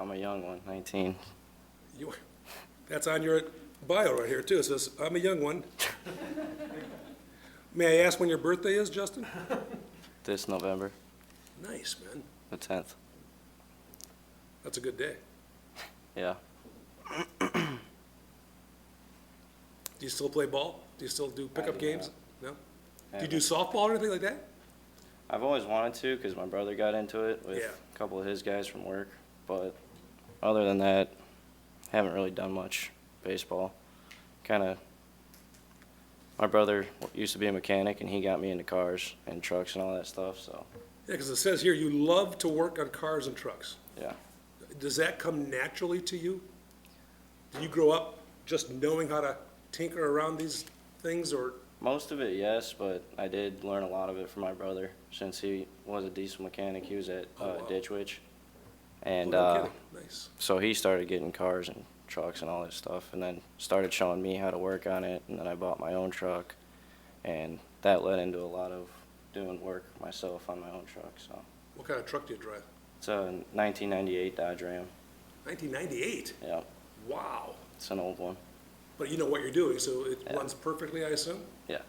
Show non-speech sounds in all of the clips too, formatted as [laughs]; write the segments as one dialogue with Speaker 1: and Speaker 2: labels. Speaker 1: I'm a young one, 19.
Speaker 2: You- That's on your bio right here, too. It says, "I'm a young one." May I ask when your birthday is, Justin?
Speaker 1: This November,
Speaker 2: Nice, man.
Speaker 1: the 10th.
Speaker 2: That's a good day.
Speaker 1: Yeah.
Speaker 2: Do you still play ball? Do you still do pickup
Speaker 1: do not.
Speaker 2: games? No? Do you
Speaker 1: And
Speaker 2: do softball or anything like that?
Speaker 1: I've always wanted to because my brother got into it with
Speaker 2: Yeah.
Speaker 1: a couple of his guys from work. But other than that, haven't really done much baseball. Kind of. My brother w- used to be a mechanic, and he got me into cars and trucks and all that stuff. So,
Speaker 2: Yeah, because it says here you love to work on cars and trucks.
Speaker 1: yeah.
Speaker 2: Does that come naturally to you? Do you grow up just knowing how to tinker around these things, or
Speaker 1: Most of it, yes, but I did learn a lot of it from my brother since he was a diesel mechanic. He was at
Speaker 2: Oh,
Speaker 1: uh,
Speaker 2: wow.
Speaker 1: Ditch Witch. And
Speaker 2: Oh, no
Speaker 1: uh,
Speaker 2: kidding. Nice.
Speaker 1: so he started getting cars and trucks and all that stuff and then started showing me how to work on it. And then I bought my own truck. And that led into a lot of doing work myself on my own truck. So
Speaker 2: What kind of truck do you drive?
Speaker 1: it's a 1998 Dodge Ram.
Speaker 2: 1998?
Speaker 1: Yeah,
Speaker 2: Wow.
Speaker 1: it's an old one.
Speaker 2: But you know what you're doing, so it
Speaker 1: Yeah.
Speaker 2: runs perfectly, I assume?
Speaker 1: Yeah.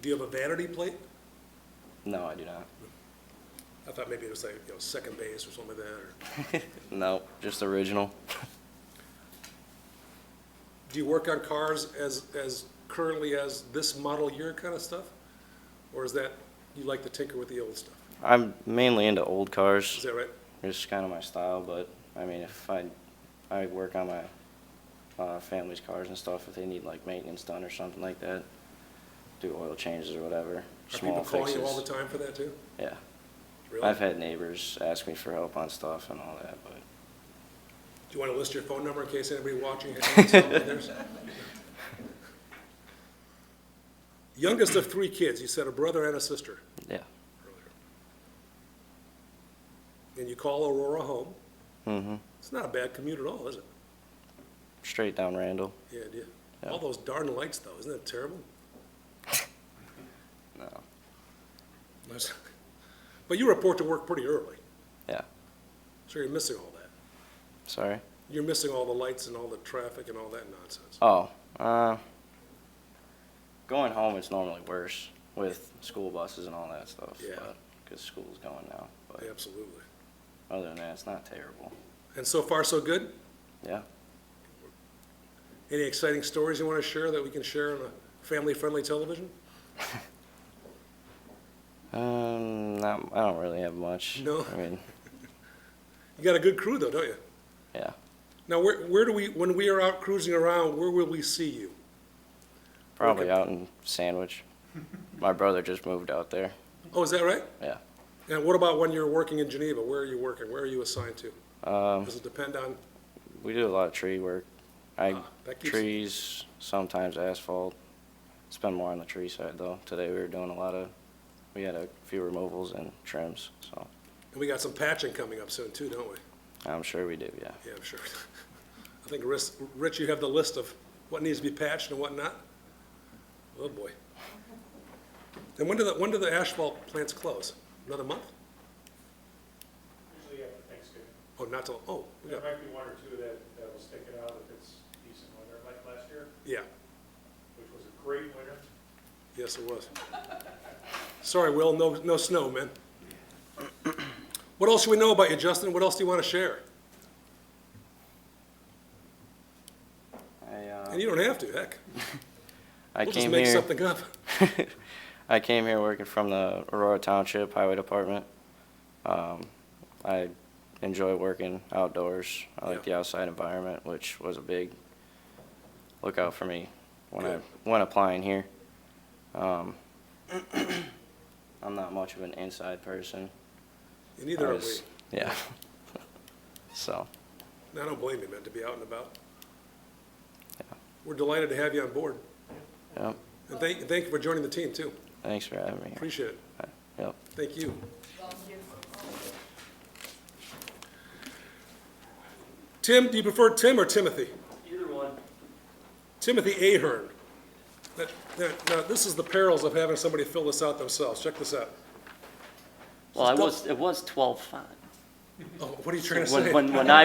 Speaker 2: Do you have a vanity plate?
Speaker 1: No, I do not.
Speaker 2: I thought maybe it was like, you know, second base or something like that, or,
Speaker 1: No, just original.
Speaker 2: do you work on cars as, as currently as this model year kind of stuff? Or is that, you like to tinker with the old stuff?
Speaker 1: I'm mainly into old cars.
Speaker 2: Is that right?
Speaker 1: It's kind of my style, but I mean, if I, I work on my uh, family's cars and stuff, if they need like maintenance done or something like that, do oil changes or whatever,
Speaker 2: Are
Speaker 1: small
Speaker 2: people calling
Speaker 1: fixes.
Speaker 2: you all the time for that too?
Speaker 1: Yeah,
Speaker 2: Really?
Speaker 1: I've
Speaker 2: Do
Speaker 1: had neighbors ask me for help on stuff and all that, but
Speaker 2: you want to list your phone number in case anybody
Speaker 1: [laughs]
Speaker 2: watching? has someone theirs? Youngest of three kids, you said a brother and a sister
Speaker 1: yeah.
Speaker 2: earlier. And you call Aurora home.
Speaker 1: Mm-hmm.
Speaker 2: It's not a bad commute at all, is it?
Speaker 1: Straight down Randall.
Speaker 2: Yeah, it is.
Speaker 1: Yeah.
Speaker 2: All those darn lights though, isn't that terrible?
Speaker 1: No.
Speaker 2: That's- [laughs] But you report to work pretty early,
Speaker 1: Yeah.
Speaker 2: so you're missing all that.
Speaker 1: Sorry.
Speaker 2: You're missing all the lights and all the traffic and all that nonsense.
Speaker 1: Oh. Uh. Going home is normally worse with school buses and all that stuff.
Speaker 2: Yeah.
Speaker 1: Because school's going now, but
Speaker 2: Absolutely.
Speaker 1: other than that, it's not terrible.
Speaker 2: And so far, so good?
Speaker 1: Yeah.
Speaker 2: Any exciting stories you want to share that we can share on a family-friendly television?
Speaker 1: Um, not, I don't really have much.
Speaker 2: No?
Speaker 1: I
Speaker 2: [laughs]
Speaker 1: mean,
Speaker 2: You got a good crew though, don't you?
Speaker 1: yeah.
Speaker 2: Now, where, where do we, when we are out cruising around, where will we see you?
Speaker 1: Probably out in Sandwich. My brother just moved out there.
Speaker 2: Oh, is that right?
Speaker 1: Yeah.
Speaker 2: And what about when you're working in Geneva? Where are you working? Where are you assigned to?
Speaker 1: Um,
Speaker 2: Does it depend on,
Speaker 1: we do a lot of tree work. I
Speaker 2: Ah, that keeps-
Speaker 1: trees, sometimes asphalt. It's been more on the tree side though. Today we were doing a lot of, we had a few removals and trims, so
Speaker 2: and we got some patching coming up soon too, don't we?
Speaker 1: I'm sure we do. Yeah.
Speaker 2: Yeah, I'm sure. I think, Ris- Rich, you have the list of what needs to be patched and what not? Oh, boy. And when do the, when do the asphalt plants close? Another month?
Speaker 3: Usually after Thanksgiving.
Speaker 2: Oh, not till, oh, we
Speaker 3: There
Speaker 2: got,
Speaker 3: might be one or two that, that will stick it out if it's decent weather, like last year,
Speaker 2: yeah,
Speaker 3: which was a great winter.
Speaker 2: yes, it was. Sorry, Will, no, no snow, man. What else should we know about you, Justin? What else do you want to share?
Speaker 1: I uh,
Speaker 2: And you don't have to, heck.
Speaker 1: I
Speaker 2: We'll just
Speaker 1: came
Speaker 2: make
Speaker 1: here.
Speaker 2: something up.
Speaker 1: [laughs] I came here working from the Aurora Township Highway Department. Um, I enjoy working outdoors. I like the outside environment, which was a big lookout for me when I
Speaker 2: Good.
Speaker 1: when applying here. Um, [coughs] I'm not much of an inside person.
Speaker 2: And
Speaker 1: I
Speaker 2: neither are we.
Speaker 1: was- Yeah. [laughs] so
Speaker 2: And I don't blame you, man, to be out and about. We're delighted to have you on board.
Speaker 1: yeah.
Speaker 2: And thank, thank you for joining the team, too.
Speaker 1: Thanks for having me. here.
Speaker 2: Appreciate it.
Speaker 1: Yep.
Speaker 2: Thank you. Tim, do you prefer Tim or Timothy?
Speaker 4: Either one.
Speaker 2: Timothy Ahern. That, that, now, this is the perils of having somebody fill this out themselves. Check this out.
Speaker 4: Well, it
Speaker 2: Still-
Speaker 4: was, it was twelve font.
Speaker 5: Oh, what are you trying to say?
Speaker 2: When, when, when I